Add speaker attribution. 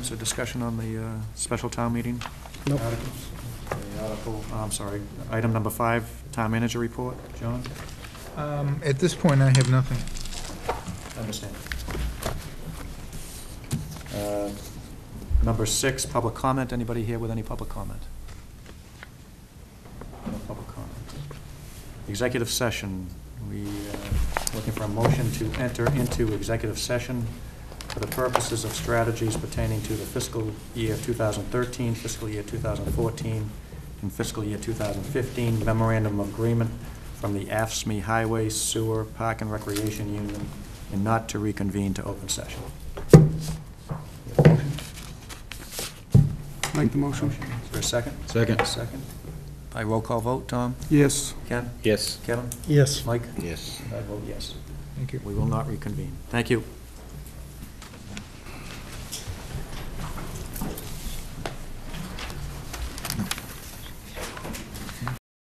Speaker 1: Is there discussion on the uh, special town meeting?
Speaker 2: Nope.
Speaker 1: Articles? Okay, Article, oh, I'm sorry, item number five, town manager report, John?
Speaker 3: Um, At this point, I have nothing.
Speaker 1: Understand. Uh, Number six, public comment. Anybody here with any public comment? No public comment. Executive session. We uh, looking for a motion to enter into executive session for the purposes of strategies pertaining to the fiscal year 2013, fiscal year 2014, and fiscal year 2015 memorandum of agreement from the AFSMI E Highway Sewer Park and Recreation Union, and not to reconvene to open session.
Speaker 2: Make the motion.
Speaker 1: Is there a second?
Speaker 4: Second.
Speaker 1: Second. By roll call vote, Tom?
Speaker 2: Yes.
Speaker 1: Ken?
Speaker 4: Yes.
Speaker 1: Kevin?
Speaker 2: Yes.
Speaker 1: Mike?
Speaker 4: Yes.
Speaker 1: I vote yes.
Speaker 3: Thank you.
Speaker 1: We will not reconvene. Thank you.